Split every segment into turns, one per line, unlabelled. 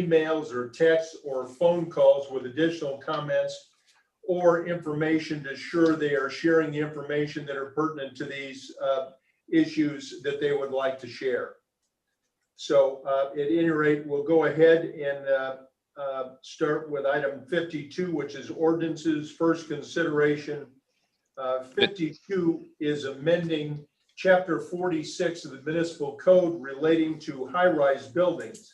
emails or texts or phone calls with additional comments or information to ensure they are sharing the information that are pertinent to these uh, issues that they would like to share. So uh, at any rate, we'll go ahead and uh, uh, start with item 52, which is ordinances, first consideration. Uh, 52 is amending Chapter 46 of the Municipal Code relating to high-rise buildings.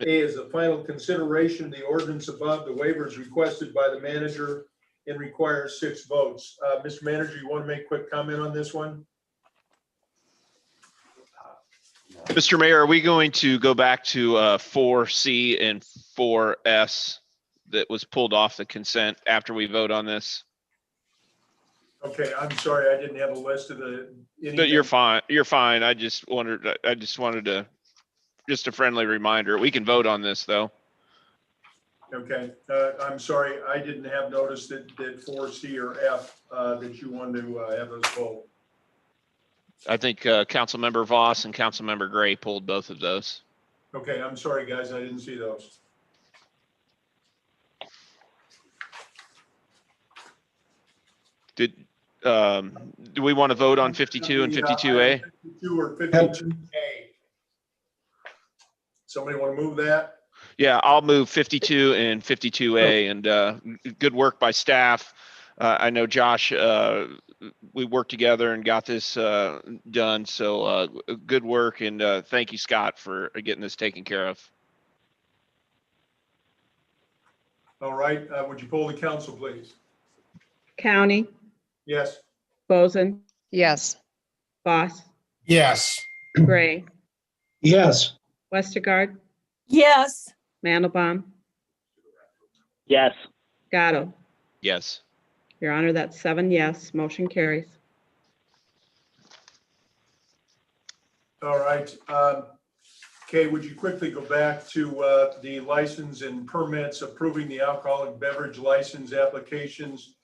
A is the final consideration of the ordinance above, the waivers requested by the manager and requires six votes. Uh, Mr. Manager, you want to make a quick comment on this one?
Mr. Mayor, are we going to go back to uh, four C and four S that was pulled off the consent after we vote on this?
Okay, I'm sorry, I didn't have a list of the.
But you're fine, you're fine. I just wondered, I- I just wanted to, just a friendly reminder. We can vote on this, though.
Okay, uh, I'm sorry, I didn't have noticed that, that four C or F, uh, that you wanted to uh, have those pulled.
I think uh, Councilmember Voss and Councilmember Gray pulled both of those.
Okay, I'm sorry, guys, I didn't see those.
Did, um, do we want to vote on fifty-two and
The, uh, item
fifty-two A?
52 or fifty-two A. Somebody want to move that?
Yeah, I'll move 52 and 52A and uh, g- good work by staff. Uh, I know Josh, uh, we worked together and got this uh, done. So uh, g- good work and uh, thank you, Scott, for getting this taken care of.
All right, uh, would you pull the council, please?
County,
Yes.
Boson,
Yes,
Boss,
Yes.
Gray,
Yes.
Westergaard,
Yes,
Mandelbaum,
Yes,
Gatto.
Yes.
Your Honor, that's seven yes. Motion carries.
All right. um, Kay, would you quickly go back to uh, the license and permits approving the alcoholic beverage license applications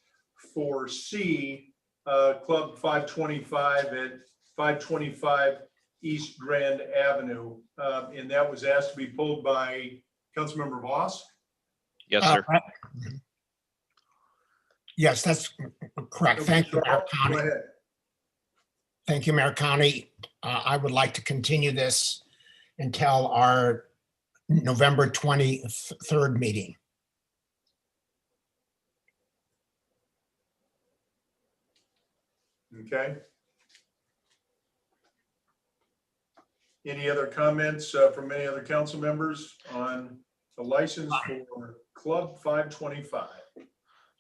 for C, uh, Club 525 at 525 East Grand Avenue. Uh, And that was asked to be pulled by Councilmember Voss.
Yes,
Uh,
sir.
Yes, that's correct. Thank you, Mayor
Go
County.
ahead.
Thank you, Mayor County. Uh, I would like to continue this until our November 23rd meeting.
Okay. Any other comments uh, from any other council members on the license for Club 525?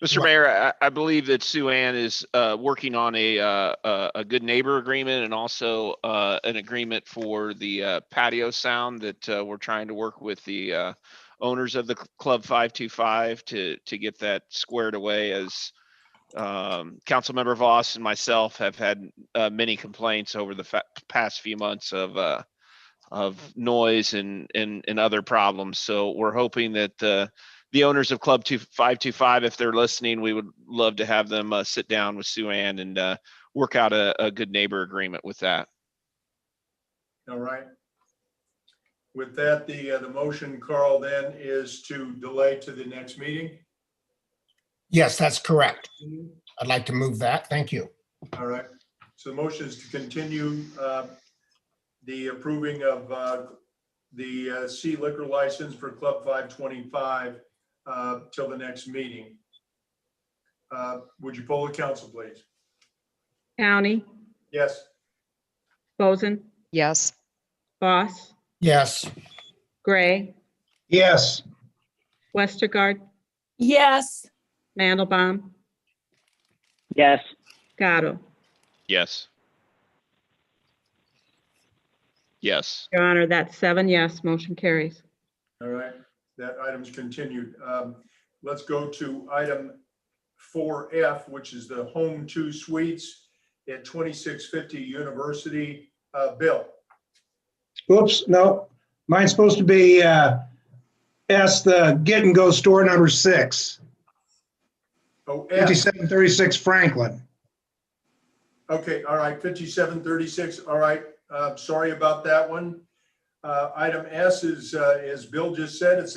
Mr. Mayor, I, I believe that Sue Ann is uh, working on a, uh, a, a good neighbor agreement and also uh, an agreement for the uh, patio sound that uh, we're trying to work with the uh, owners of the cl- Club 525 to, to get that squared away as um, Councilmember Voss and myself have had uh, many complaints over the fa- past few months of uh, of noise and, and, and other problems. So we're hoping that uh, the owners of Club Two Five Two Five, if they're listening, we would love to have them uh, sit down with Sue Ann and uh, work out a, a good neighbor agreement with that.
All right. With that, the, uh, the motion, Carl, then is to delay to the next meeting.
Yes, that's correct. I'd like to move that. Thank you.
All right. So the motion is to continue uh, the approving of uh, the uh, C liquor license for Club 525 uh, till the next meeting. Uh, Would you poll the council, please?
County,
Yes.
Boson,
yes,
Boss,
Yes.
Gray,
Yes.
Westergaard,
yes,
Mandelbaum,
yes,
Gatto.
Yes. Yes.
Your Honor, that's seven yes. Motion carries.
All right, that item's continued. Um, Let's go to item four F, which is the Home Two Suites at 2650 University. Uh, Bill?
Oops, no, mine's supposed to be, uh, S, the get and go store number six,
Oh, F.
fifty-seven thirty-six Franklin.
Okay, all right, fifty-seven thirty-six, all right, uh, sorry about um, that one. Uh, Item S is, uh, as Bill just said, it's a